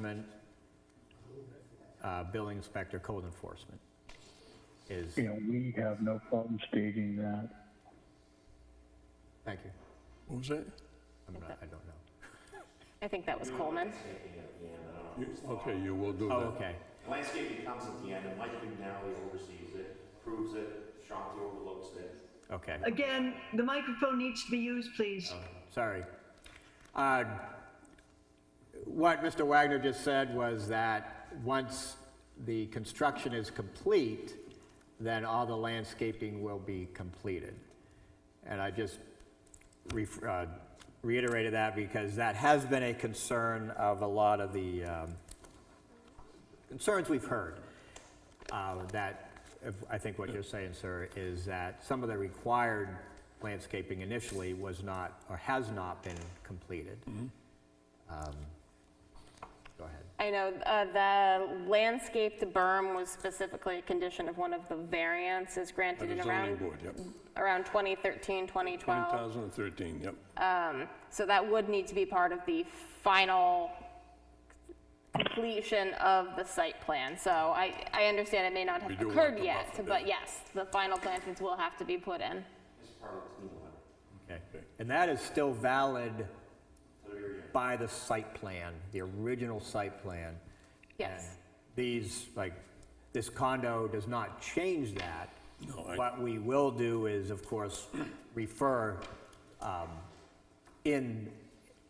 Amendment, uh, building inspector, code enforcement is, You know, we have no problem stating that. thank you. What was that? I'm not, I don't know. I think that was Coleman. You- Okay, you will do Oh, that. okay. Landscaping comes at the end, and Mike McNally oversees it, approves it, Shanti overlooks it. Okay, Again, the microphone needs to be used, please. sorry. Uh, What Mr. Wagner just said was that once the construction is complete, then all the landscaping will be completed. And I just ref- uh, reiterated that because that has been a concern of a lot of the um, concerns we've heard. uh, That, if- I think what you're saying, sir, is that some of the required landscaping initially was not, or has not been completed. Um, Go ahead. I know uh, the landscaped berm was specifically a condition of one of the variances By granted the in zoning around, board, yep. around 2013, 2012. 2013, yep. So that would need to be part of the final completion of the site plan. So I, I understand it may not have We do want occurred the yet, buffer, but yeah. yes, the final plantings will have to be put in. Okay. And that is still valid by the site plan, the original site plan. Yes. And These, like, this condo does not change that. No, I- What we will do is, of course, refer um, in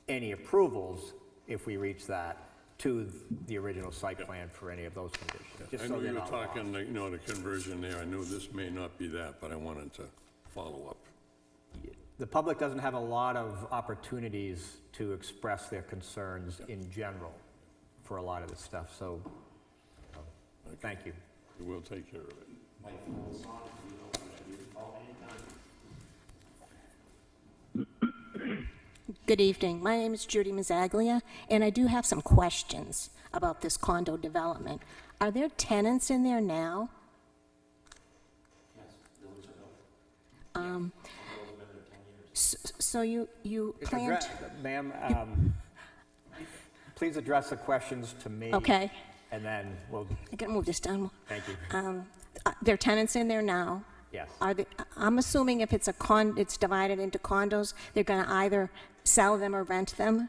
any approvals, if we reach that, to the original site plan for any of those conditions. just I so know they're you were not lost. talking, like, you know, the conversion there. I knew this may not be that, but I wanted to follow up. the public doesn't have a lot of opportunities to express their concerns in general for a lot of this stuff, so, um, thank you. We'll take care of it. Good evening. My name is Judy Mazzaglia, and I do have some questions about this condo development. Are there tenants in there now? Um, s- So you, you plan Address- to... Ma'am, um, please address the questions to me. Okay. And then, we'll. I can move this down. more. thank you. Um, uh, There are tenants in there now? Yes. Are they, I'm assuming if it's a con, it's divided into condos, they're going to either sell them or rent them?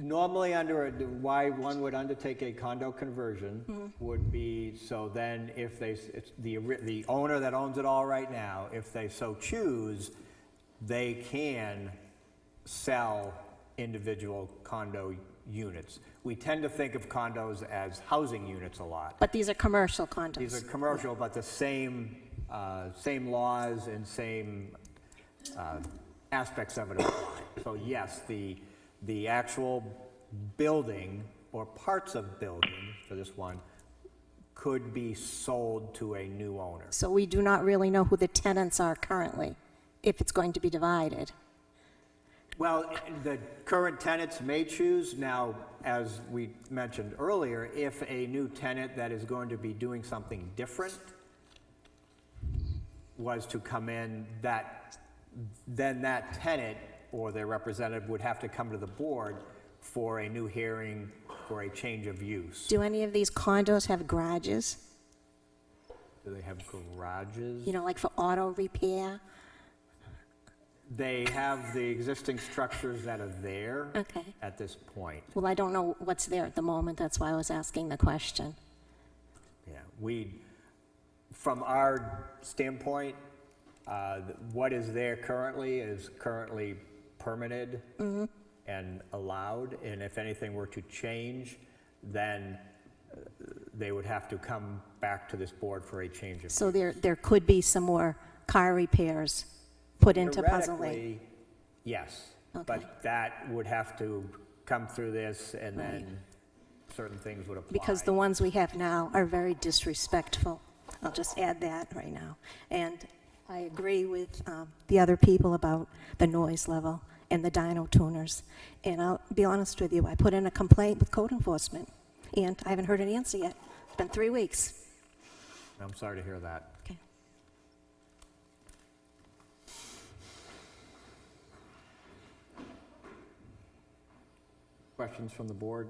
Normally, under, a- why one would undertake a condo conversion Mm-hmm. would be, so then if they, s- it's the, ori- the owner that owns it all right now, if they so choose, they can sell individual condo units. We tend to think of condos as housing units a lot. But these are commercial condos? These are commercial, but the same, uh, same laws and same uh, aspects of it apply. So yes, the, the actual building or parts of building for this one could be sold to a new owner. So we do not really know who the tenants are currently, if it's going to be divided. Well, the current tenants may choose. Now, as we mentioned earlier, if a new tenant that is going to be doing something different was to come in, that, then that tenant or their representative would have to come to the board for a new hearing for a change of use. Do any of these condos have garages? Do they have garages? You know, like for auto repair? They have the existing structures that are there Okay. at this point. Well, I don't know what's there at the moment, that's why I was asking the question. Yeah, we, from our standpoint, uh, th- what is there currently is currently permitted Mm-hmm. and allowed, and if anything were to change, then uh, they would have to come back to this board for a change of. So there, there could be some more car repairs put into Puzzle Lake. Theoretically, Yes, Okay. but that would have to come through this, and then certain things would apply. Because the ones we have now are very disrespectful. I'll just add that right now. And I agree with um, the other people about the noise level and the dyno tuners. And I'll be honest with you, I put in a complaint with code enforcement, and I haven't heard an answer yet. It's been three weeks. I'm sorry to hear that. Okay. Questions from the board?